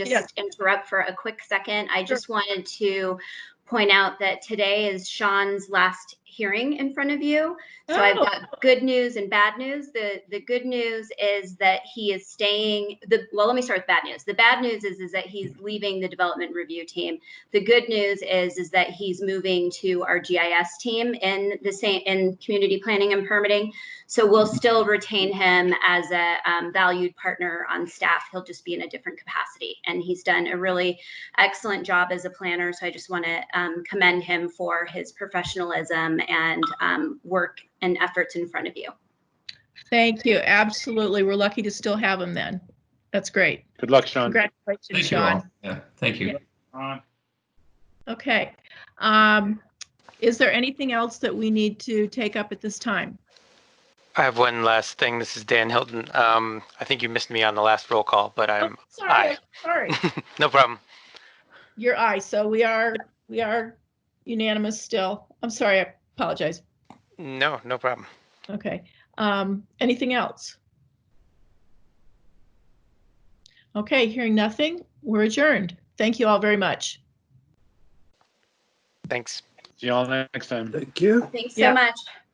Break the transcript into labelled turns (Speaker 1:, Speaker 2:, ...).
Speaker 1: Yeah.
Speaker 2: just interrupt for a quick second? I
Speaker 1: Sure.
Speaker 2: just wanted to point out that today is Sean's last hearing in front of you. So I've
Speaker 1: Oh.
Speaker 2: got good news and bad news. The, the good news is that he is staying, the, well, let me start with bad news. The bad news is, is that he's leaving the development review team. The good news is, is that he's moving to our GIS team in the same, in community planning and permitting. So we'll still retain him as a um, valued partner on staff. He'll just be in a different capacity. And he's done a really excellent job as a planner. So I just want to um, commend him for his professionalism and um, work and efforts in front of you.
Speaker 1: Thank you. Absolutely. We're lucky to still have him then. That's great.
Speaker 3: Good luck, Sean.
Speaker 1: Congratulations,
Speaker 4: Thank you all.
Speaker 1: Sean.
Speaker 4: Yeah, thank you.
Speaker 1: Okay. Um, Is there anything else that we need to take up at this time?
Speaker 5: I have one last thing. This is Dan Hilton. Um, I think you missed me on the last roll call, but
Speaker 1: Oh,
Speaker 4: Um,
Speaker 5: I'm
Speaker 1: Sorry, I'm sorry.
Speaker 5: no problem.
Speaker 1: Your eye. So we are, we are unanimous still. I'm sorry, I apologize.
Speaker 5: No, no problem.
Speaker 1: Okay. Um, Anything else? Okay, hearing nothing, we're adjourned. Thank you all very much.
Speaker 5: Thanks.
Speaker 3: See y'all next time.
Speaker 6: Thank you.
Speaker 2: Thanks
Speaker 1: Yeah.
Speaker 2: so much.